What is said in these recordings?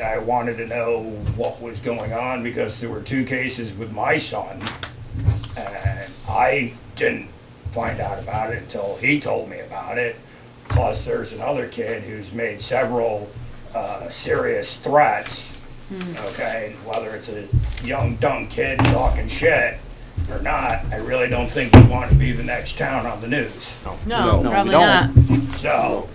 I wanted to know what was going on because there were two cases with my son. And I didn't find out about it until he told me about it. Plus, there's another kid who's made several uh, serious threats. Okay, whether it's a young dumb kid talking shit or not, I really don't think we want to be the next town on the news. No, No, we probably not. don't. So,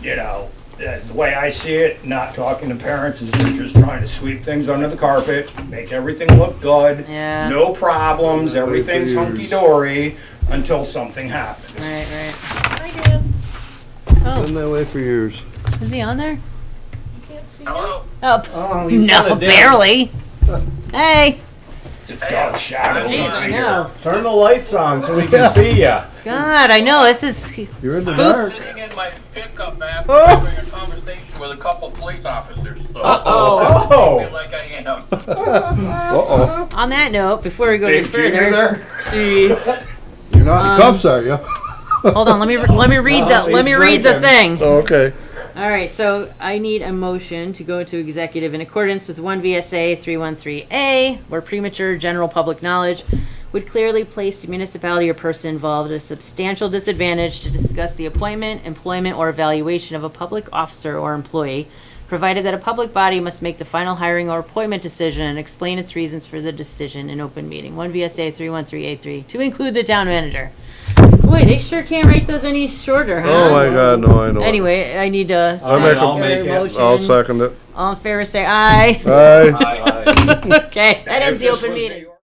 you know, uh, the way I see it, not talking to parents is they're just trying to sweep things under the carpet, make everything look good. Yeah. No problems, everything's Refuse. hunky-dory until something happens. Right, right. Hi, Dad. Been Oh, that way for years. is he on there? You can't see Oh, Oh, he's no, kinda dead. barely. Hey, Oh, It's a dark shadow behind her. Turn the lights on so we can see you. God, I know this is You're in the spook. dark. Sitting in my pickup after having a conversation with a couple police officers, so I feel Oh, like I am. Uh-oh. On that note, before we go any Big junior further, there? jeez, You're not in cuffs, are you? hold on. Let me let me read the Oh, let me he's read the drinking. thing. Oh, okay. All right, so I need a motion to go into executive in accordance with 1 VSA 313A, where premature general public knowledge would clearly place the municipality or person involved at a substantial disadvantage to discuss the appointment, employment, or evaluation of a public officer or employee, provided that a public body must make the final hiring or appointment decision and explain its reasons for the decision in open meeting. 1 VSA 313A3, to include the town manager. Boy, they sure can't write those any shorter, huh? Oh, my God, no, I know. it. Anyway, I need to. I'll make I'll make it. I'll second it. All in favor, say aye. Aye. Okay, that ends the If this open was meeting. New York-